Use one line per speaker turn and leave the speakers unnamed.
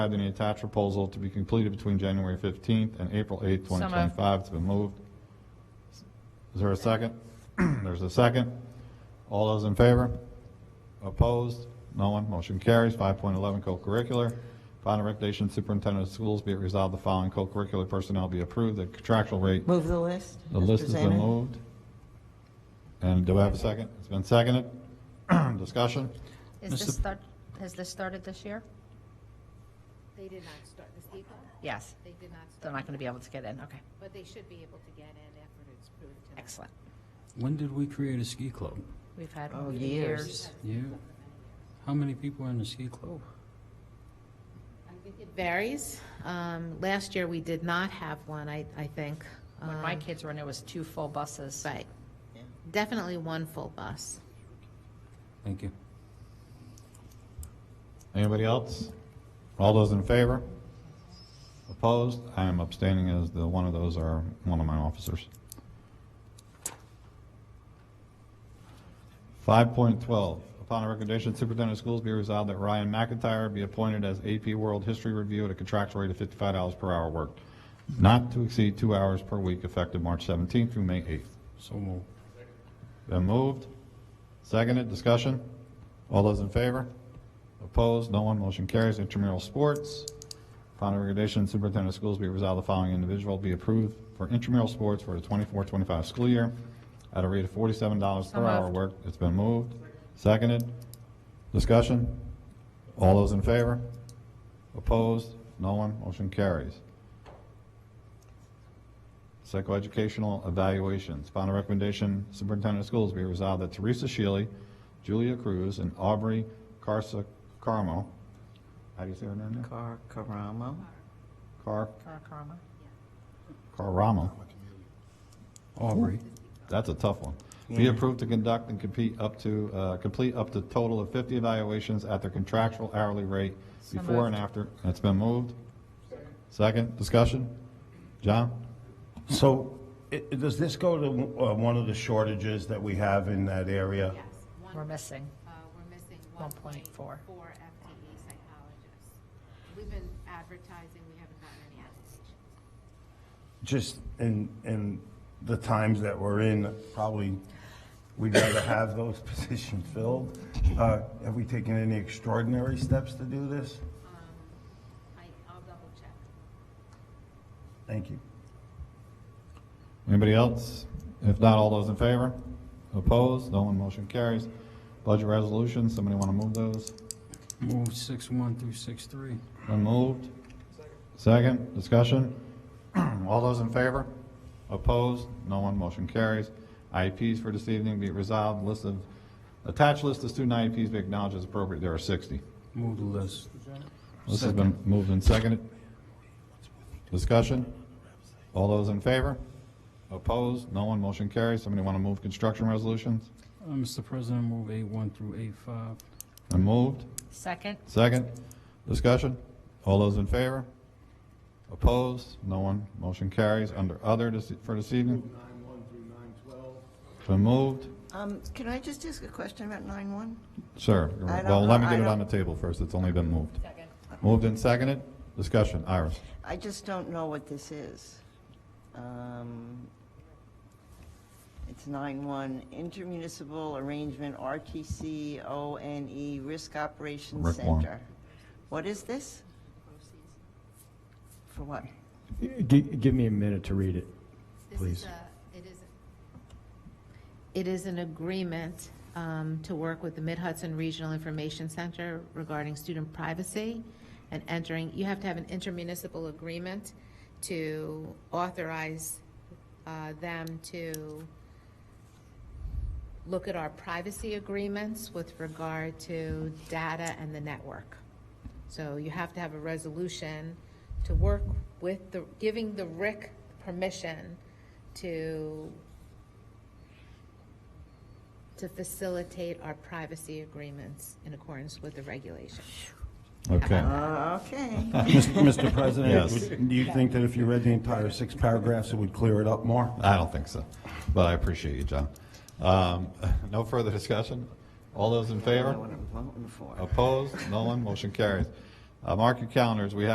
Add any attached proposal to be completed between January 15th and April 8th,
So moved.
2025. It's been moved. Is there a second? There's a second. All those in favor? Opposed? No one. Motion carries. 5.11 co-curricular. Final recommendation superintendent of schools be it resolved the following co-curricular personnel be approved at contractual rate.
Move the list.
The
as
list has been
presented.
moved. And do I have a second? It's been seconded. Discussion?
Is this start, has this started this year?
They did not start this April.
Yes,
They did not
they're
start,
not going to be able to get in, okay,
but they should be able to get in after it's approved tonight.
excellent.
When did we create a ski club?
We've had
Oh,
years.
years.
Yeah. How many people are in the ski club?
I think it varies. Um, Last year, we did not have one, I, I think.
When my
Um,
kids were in, it was two full buses.
Right. Definitely one full bus.
Thank you.
Anybody else? All those in favor? Opposed? I am abstaining as the, one of those are one of my officers. 5.12, upon a recommendation, superintendent of schools be resolved that Ryan McIntyre be appointed as AP World History Review at a contractual rate of $55 per hour worked, not to exceed two hours per week effective March 17th through May 8th.
So moved.
Been moved, seconded, discussion? All those in favor? Opposed, no one, motion carries. Intramural sports, upon recommendation, superintendent of schools be resolved, the following individual be approved for intramural sports for the 24-25 school year at a rate of forty-seven dollars per
So
hour
moved.
worked. It's been moved, seconded, discussion? All those in favor? Opposed, no one, motion carries. Psychoeducational evaluations. Final recommendation, Superintendent of Schools be resolved that Teresa Shealy, Julia Cruz, and Aubrey Carsa Carmo, how do you say her name? now?
Car, Caramo.
Car,
Karakarama.
Caramo,
Aubrey.
that's a tough one. Be
Yeah.
approved to conduct and compete up to, uh, complete up to total of 50 evaluations at their contractual hourly rate
So
before and
moved.
after. That's been moved. Second, discussion? John?
So i- does this go to uh, one of the shortages that we have in that area?
Yes. one-
We're missing.
uh, We're missing
1.4.
1.4 FTE E psychologists. We've been advertising, we haven't gotten any applications.
Just in, in the times that we're in, probably we'd rather have those positions filled. Uh, Have we taken any extraordinary steps to do this?
Um, I, I'll double check.
Thank you.
Anybody else? If not, all those in favor? Opposed? No one motion carries. Budget resolutions, somebody want to move those?
Move six one through six three.
Been moved? Second, discussion? All those in favor? Opposed? No one motion carries. IEPs for this evening be it resolved, list of, attached list of student IEPs be acknowledged as appropriate, there are 60.
Move the list.
This has been moved and seconded. Discussion? All those in favor? Opposed? No one motion carries. Somebody want to move construction resolutions?
Uh, Mr. President, move eight one through eight five.
Been moved?
Second,
Second, discussion? All those in favor? Opposed? No one. Motion carries. Under other this- for this evening? Been moved?
Um, can I just ask a question about nine-one?
Sir,
I don't
well, let me
know.
get
I
it on the
don't-
table first. It's only been moved. Moved and seconded? Discussion. Iris?
I just don't know what this is. Um, It's nine-one, intermunicipal arrangement, RTC, ONE, E, Risk Operations
Rick Warren.
Center. What is this? For what?
Gi- Give me a minute to read it.
This
Please.
is a, it is, it is an agreement um, to work with the Mid-Hudson Regional Information Center regarding student privacy and entering, you have to have an intermunicipal agreement to authorize uh, them to look at our privacy agreements with regard to data and the network. So you have to have a resolution to work with the, giving the RIC permission to, to facilitate our privacy agreements in accordance with the regulation.
Okay.
Uh, okay.
Mr.
Yes.
President, do you think that if you read the entire six paragraphs, it would clear it up more?
I don't think so, but I appreciate you, John. Um, No further discussion? All those in
I don't know
favor?
what I'm voting for.
Opposed? No one. Motion carries. Uh, Mark your calendars, we have